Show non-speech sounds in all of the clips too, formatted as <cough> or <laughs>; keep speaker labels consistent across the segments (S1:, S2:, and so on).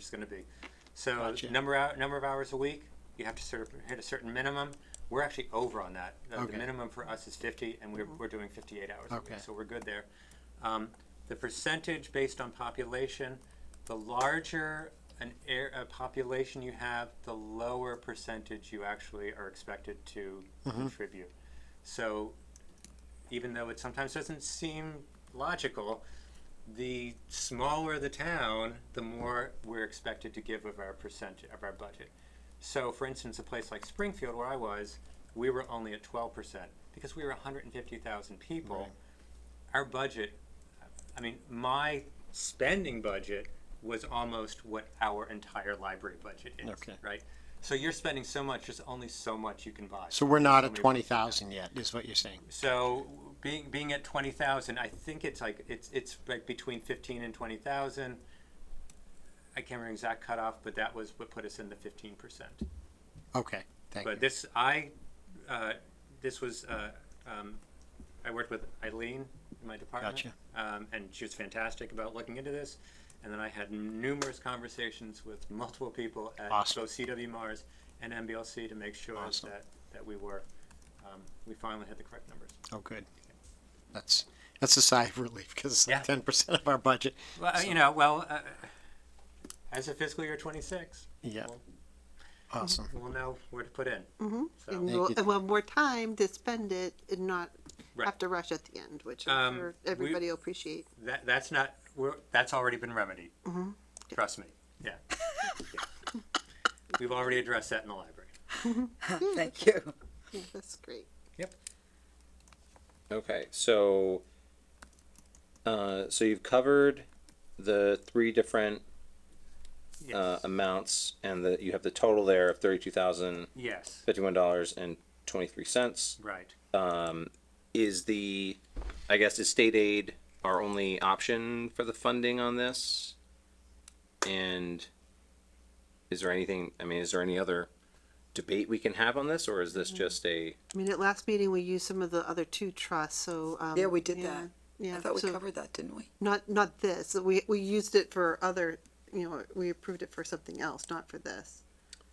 S1: it's going to be. So
S2: Gotcha.
S1: number out number of hours a week, you have to sort of hit a certain minimum. We're actually over on that. The, the
S2: Okay.
S1: minimum for us is 50, and we're, we're doing 58 hours a
S2: Okay.
S1: week, so we're good there. Um, the percentage based on population, the larger an air, a population you have, the lower percentage you actually are expected to
S2: Mm-hmm.
S1: contribute. So even though it sometimes doesn't seem logical, the smaller the town, the more we're expected to give of our percent of our budget. So, for instance, a place like Springfield, where I was, we were only at 12% because we were 150,000 people. Our budget, I mean, my spending budget was almost what our entire library budget is,
S2: Okay.
S1: right? So you're spending so much, there's only so much you can buy.
S2: So we're not at
S1: many-
S2: twenty thousand yet, is what you're saying?
S1: So being being at twenty thousand, I think it's like it's it's like between fifteen and twenty thousand. I can't remember exact cutoff, but that was what put us in the fifteen percent.
S2: Okay, thank
S1: But
S2: you.
S1: this I, uh, this was uh, um, I worked with Eileen in my department,
S2: Gotcha.
S1: um, and she was fantastic about looking into this. And then I had numerous conversations with multiple people at
S2: Awesome.
S1: both CW Mars and MBLC to make sure
S2: Awesome.
S1: that that we were um, we finally had the correct numbers.
S2: Oh, good. That's, that's a sigh of <laughs> relief because it's like
S1: Yeah.
S2: ten percent of our budget.
S1: Well, you know, well, uh, as of fiscal year 26,
S2: Yeah.
S1: Well-
S2: Awesome.
S1: we'll know where to put in.
S3: And
S1: So,
S2: Thank
S3: we'll,
S2: you.
S3: and we'll have more time to spend it and not
S1: Right.
S3: have to rush at the end, which
S1: Um,
S3: I'm sure
S1: we-
S3: everybody will appreciate.
S1: that, that's not, we're, that's already been remedied. Trust me. Yeah. Yeah. We've already addressed that in the library.
S4: Thank you.
S3: Yeah, that's great.
S5: Okay, so, uh, so you've covered the three different uh,
S1: Yes.
S5: amounts, and the you have the total there of thirty-two thousand
S1: Yes.
S5: fifty-one dollars and twenty-three cents.
S1: Right.
S5: Is the, I guess, is state aid our only option for the funding on this? And is there anything? I mean, is there any other debate we can have on this, or is this just a?
S3: I mean, at last meeting, we used some of the other two trusts, so. um,
S4: Yeah, we did that.
S3: Yeah.
S4: I thought we
S3: so
S4: covered that, didn't we?
S3: Not, not this. We, we used it for other, you know, we approved it for something else, not for this.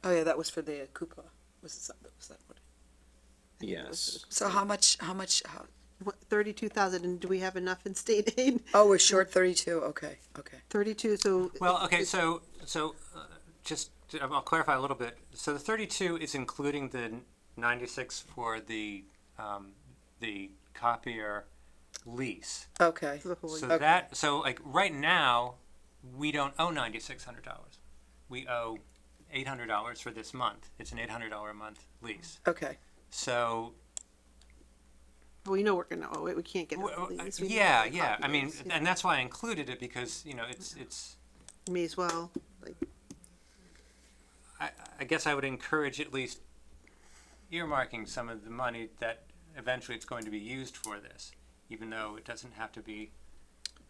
S4: Oh yeah, that was for the Coupa. Was it something? Was that what?
S3: I think it was-
S5: Yes.
S4: So how much? How much? How,
S3: What, thirty-two thousand, and do we have enough in state <laughs> aid?
S4: oh, we're short thirty-two. Okay, okay.
S3: Thirty-two, so.
S1: Well, okay, so, so uh, just, to- I'll clarify a little bit. So the 32 is including the 96 for the, um, the copier lease.
S4: Okay.
S3: The whole,
S1: So
S4: Okay.
S1: that so like right now, we don't owe ninety six hundred dollars. We owe eight hundred dollars for this month. It's an eight hundred dollar a month lease.
S4: Okay.
S1: So
S3: we know we're gonna owe it. We can't get.
S1: w-
S3: enough of
S1: w-
S3: these. We need
S1: uh, yeah,
S3: to
S1: yeah.
S3: copy
S1: I mean,
S3: these.
S1: and that's why I included it because you know it's it's.
S3: May as well, like,
S1: I, I guess I would encourage at least earmarking some of the money that eventually it's going to be used for this, even though it doesn't have to be.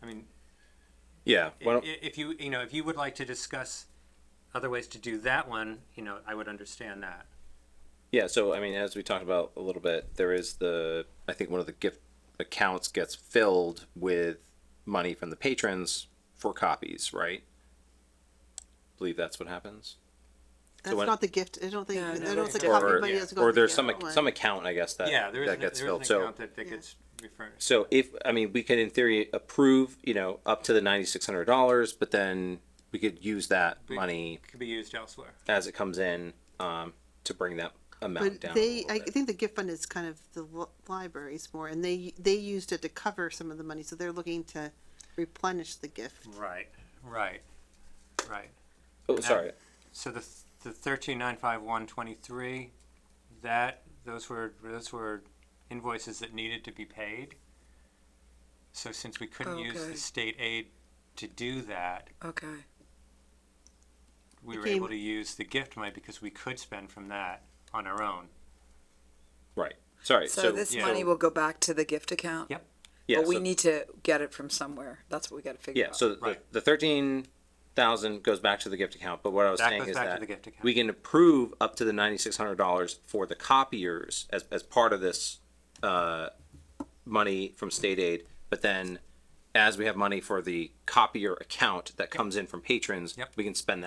S1: I mean,
S5: Yeah.
S1: I-
S5: Why don't,
S1: i- if you, you know, if you would like to discuss other ways to do that one, you know, I would understand that.
S5: Yeah, so I mean, as we talked about a little bit, there is the I think one of the gift accounts gets filled with money from the patrons for copies, right? believe that's what happens.
S3: that's
S5: when-
S3: not the gift. I don't think,
S4: Yeah,
S3: I
S4: no,
S3: don't
S4: no,
S3: think
S4: no.
S5: Or,
S3: everybody has gone.
S5: or
S3: to
S5: there's
S3: get
S5: some
S3: that
S5: ac-
S3: one.
S5: some account I guess that
S1: Yeah, there is,
S5: that
S1: an-
S5: gets
S1: there is an
S5: filled. So
S1: account that, that
S3: Yeah.
S1: gets referred.
S5: so if I mean we could in theory approve you know up to the ninety six hundred dollars, but then we could use that
S1: We-
S5: money
S1: Could be used elsewhere.
S5: as it comes in um, to bring that amount
S3: But
S5: down. a
S3: they,
S5: little
S3: I
S5: bit.
S3: think the gift fund is kind of the li- libraries more, and they, they used it to cover some of the money, so they're looking to replenish the gift.
S1: Right, right, right.
S5: oh, sorry.
S1: So the, the thirteen nine five one twenty-three, that, those were, those were invoices that needed to be paid. So since we
S3: Oh,
S1: couldn't use
S4: Okay.
S1: the state aid to do that,
S4: Okay.
S1: we
S3: It
S1: were able
S3: came-
S1: to use the gift money because we could spend from that on our own.
S5: Right. Sorry.
S4: So,
S5: So,
S4: this
S1: yeah.
S4: money will go back to the gift account.
S1: Yep.
S5: yeah,
S4: but we
S5: so-
S4: need to get it from somewhere. That's what we got to figure
S5: Yeah,
S4: out.
S5: so the,
S1: Right.
S5: the thirteen thousand goes back to the gift account, but what I was
S1: That
S5: saying
S1: goes
S5: is
S1: back to
S5: that
S1: the gift account.
S5: we can approve up to the ninety-six hundred dollars for the copiers as, as part of this, uh, money from state aid, but then as we have money for the copier account that comes in from patrons,
S1: Yep.
S5: we can spend that